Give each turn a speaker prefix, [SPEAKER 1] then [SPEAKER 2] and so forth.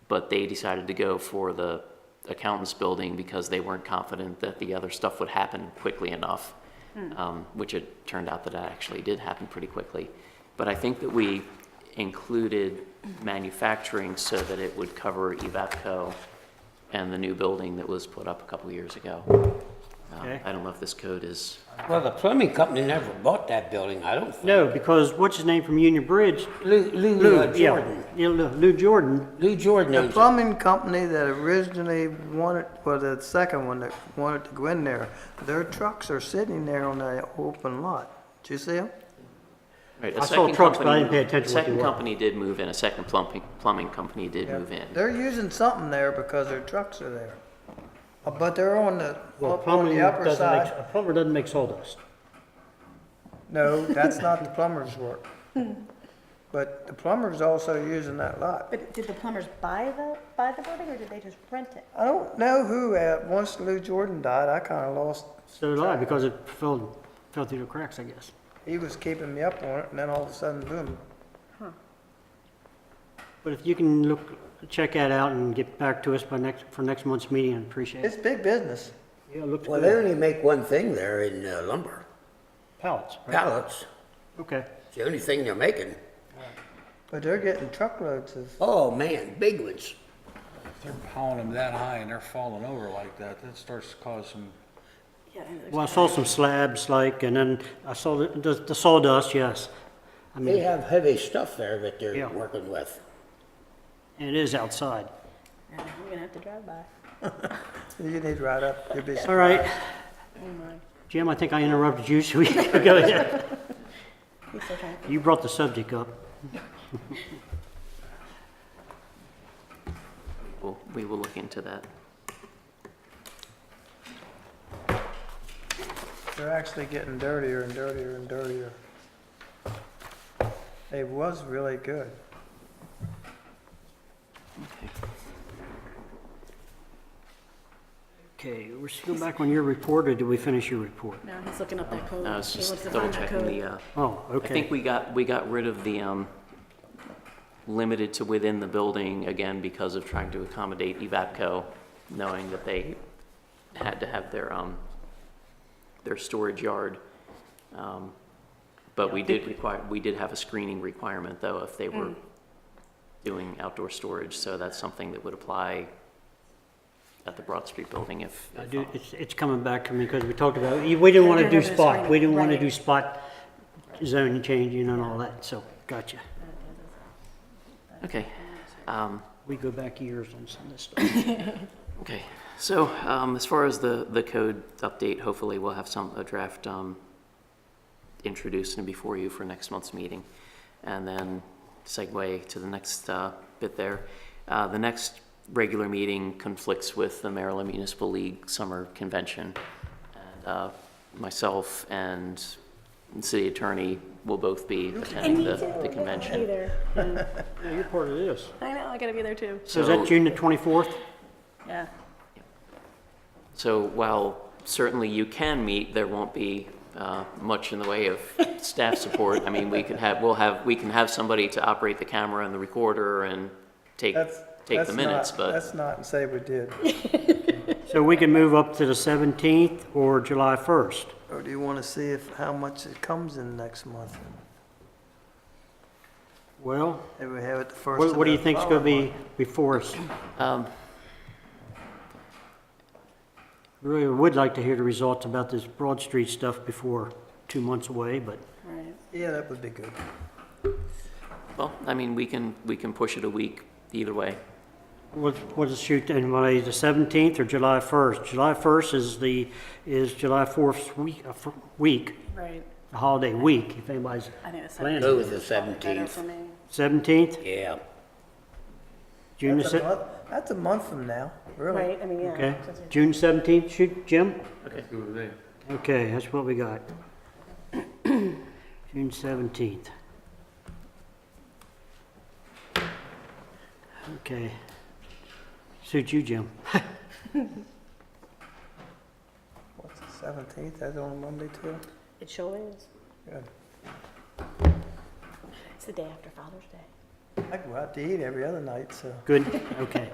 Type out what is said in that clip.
[SPEAKER 1] but they decided to go for the accountant's building because they weren't confident that the other stuff would happen quickly enough, um, which it turned out that it actually did happen pretty quickly. But I think that we included manufacturing so that it would cover EVAPCO and the new building that was put up a couple years ago. Um,
[SPEAKER 2] Okay.
[SPEAKER 1] I don't know if this code is,
[SPEAKER 3] Well, the plumbing company never bought that building, I don't think.
[SPEAKER 2] No, because what's his name from Union Bridge?
[SPEAKER 3] Lou, Lou
[SPEAKER 2] Lou,
[SPEAKER 3] uh,
[SPEAKER 2] yeah,
[SPEAKER 3] Jordan.
[SPEAKER 2] yeah, Lou Lou Jordan.
[SPEAKER 3] Lou Jordan
[SPEAKER 4] The
[SPEAKER 3] owns it.
[SPEAKER 4] plumbing company that originally wanted, well, the second one that wanted to go in there, their trucks are sitting there on the open lot. Did you see them?
[SPEAKER 1] right,
[SPEAKER 2] I
[SPEAKER 1] a
[SPEAKER 2] saw
[SPEAKER 1] second
[SPEAKER 2] trucks, but
[SPEAKER 1] company-
[SPEAKER 2] I didn't pay attention
[SPEAKER 1] a
[SPEAKER 2] what they
[SPEAKER 1] Second
[SPEAKER 2] were.
[SPEAKER 1] company did move in, a second plumbing, plumbing company did move in.
[SPEAKER 4] They're using something there because their trucks are there. Uh, But they're on the,
[SPEAKER 2] Well,
[SPEAKER 4] up on
[SPEAKER 2] plumbing
[SPEAKER 4] the upper
[SPEAKER 2] doesn't make,
[SPEAKER 4] side.
[SPEAKER 2] a plumber doesn't make sawdust.
[SPEAKER 4] No, that's not the plumber's work.
[SPEAKER 2] Hmm.
[SPEAKER 4] But the plumber's also using that lot.
[SPEAKER 5] But did the plumbers buy the, buy the building, or did they just rent it?
[SPEAKER 4] I don't know who, uh, once Lou Jordan died, I kinda lost,
[SPEAKER 2] So did I, because it fell, fell through the cracks, I guess.
[SPEAKER 4] he was keeping me up on it, and then all of a sudden, boom.
[SPEAKER 2] But if you can look, check that out and get back to us by next, for next month's meeting, I'd appreciate
[SPEAKER 4] It's
[SPEAKER 2] it.
[SPEAKER 4] big business.
[SPEAKER 2] Yeah, it looks
[SPEAKER 3] Well, they
[SPEAKER 2] good.
[SPEAKER 3] only make one thing there in uh, lumber,
[SPEAKER 2] Pallets, right?
[SPEAKER 3] pallets.
[SPEAKER 2] Okay.
[SPEAKER 3] It's the only thing they're making.
[SPEAKER 4] But they're getting truckloads of
[SPEAKER 3] Oh, man, big ones.
[SPEAKER 6] They're pounding them that high and they're falling over like that, that starts to cause some,
[SPEAKER 5] Yeah,
[SPEAKER 2] Well, I saw some slabs, like, and then I saw the, the the sawdust, yes. I
[SPEAKER 3] They
[SPEAKER 2] mean,
[SPEAKER 3] have heavy stuff there that they're
[SPEAKER 2] Yeah.
[SPEAKER 3] working with.
[SPEAKER 2] and it is outside.
[SPEAKER 5] I'm gonna have to drive by.
[SPEAKER 4] You need to write up your business.
[SPEAKER 2] All right.
[SPEAKER 5] Oh
[SPEAKER 2] Jim, I think I interrupted you, so we can go ahead.
[SPEAKER 5] He's so trying.
[SPEAKER 2] You brought the subject up.
[SPEAKER 1] We'll- We will look into that.
[SPEAKER 4] They're actually getting dirtier and dirtier and dirtier. It was really good.
[SPEAKER 2] Okay, we're still back on your report, or did we finish your report?
[SPEAKER 5] No, he's looking up that code.
[SPEAKER 1] I was
[SPEAKER 5] He
[SPEAKER 1] just
[SPEAKER 5] wants to
[SPEAKER 1] double
[SPEAKER 5] find that
[SPEAKER 1] checking
[SPEAKER 5] code.
[SPEAKER 1] the, uh,
[SPEAKER 2] Oh,
[SPEAKER 1] I
[SPEAKER 2] okay.
[SPEAKER 1] think we got, we got rid of the, um, limited to within the building, again, because of trying to accommodate EVAPCO, knowing that they had to have their, um, their storage yard. Um, But we did require, we did have a screening requirement, though, if they
[SPEAKER 5] Mm.
[SPEAKER 1] were doing outdoor storage, so that's something that would apply at the Broad Street building if.
[SPEAKER 2] I
[SPEAKER 1] if,
[SPEAKER 2] do,
[SPEAKER 1] um,
[SPEAKER 2] it's, it's coming back to me because we talked about, we didn't want to do spot, we didn't want to do spot zone changing and all that, so, gotcha.
[SPEAKER 1] Okay. Um,
[SPEAKER 2] We go back years on some of this stuff.
[SPEAKER 1] Okay, so um, as far as the, the code update, hopefully we'll have some, a draft um, introduced and before you for next month's meeting. And then segue to the next uh, bit there. Uh, The next regular meeting conflicts with the Maryland Municipal League Summer Convention. And uh, Myself and the city attorney will both be attending uh, the the convention.
[SPEAKER 5] there.
[SPEAKER 2] Yeah, you're part of this.
[SPEAKER 5] I know, I gotta be there too.
[SPEAKER 2] So is that June the 24th?
[SPEAKER 5] Yeah.
[SPEAKER 1] So while certainly you can meet, there won't be uh, much in the way of staff support. I mean, we could have, we'll have, we can have somebody to operate the camera and the recorder and take,
[SPEAKER 4] That's,
[SPEAKER 1] take
[SPEAKER 4] that's
[SPEAKER 1] the
[SPEAKER 4] not-
[SPEAKER 1] minutes, but
[SPEAKER 4] That's not, say we did.
[SPEAKER 2] So we can move up to the 17th or July 1st?
[SPEAKER 4] Or do you want to see if, how much it comes in next month?
[SPEAKER 2] Well,
[SPEAKER 4] If we have it the first
[SPEAKER 2] what
[SPEAKER 4] of
[SPEAKER 2] what do
[SPEAKER 4] the
[SPEAKER 2] you think's going to
[SPEAKER 4] following
[SPEAKER 2] be before us?
[SPEAKER 1] um,
[SPEAKER 2] Really would like to hear the results about this Broad Street stuff before two months away, but
[SPEAKER 5] Right.
[SPEAKER 4] month. Yeah, that would be good.
[SPEAKER 1] well, I mean, we can, we can push it a week either way.
[SPEAKER 2] What, what is shoot, anybody, the 17th or July 1st? July 1st is the, is July 4th week, uh, fr- week,
[SPEAKER 5] Right.
[SPEAKER 2] the holiday week, if anybody's
[SPEAKER 5] I think it's.
[SPEAKER 2] planning.
[SPEAKER 3] Go with the
[SPEAKER 5] Better for
[SPEAKER 3] 17th.
[SPEAKER 5] me.
[SPEAKER 2] 17th,
[SPEAKER 3] Yeah.
[SPEAKER 2] June the
[SPEAKER 4] That's a
[SPEAKER 2] 17th,
[SPEAKER 4] month, that's a month from now, really.
[SPEAKER 5] Right, I mean, yeah.
[SPEAKER 2] okay,
[SPEAKER 5] since it's-
[SPEAKER 2] June 17th, shoot, Jim?
[SPEAKER 6] that's good with me.
[SPEAKER 2] Okay, that's what we got. June 17th. Okay. Suit you, Jim.
[SPEAKER 4] What's the seventeenth? That's on a Monday too?
[SPEAKER 5] It sure is.
[SPEAKER 4] Good.
[SPEAKER 5] It's the day after Father's Day.
[SPEAKER 4] I go out to eat every other night, so.
[SPEAKER 2] Good, okay.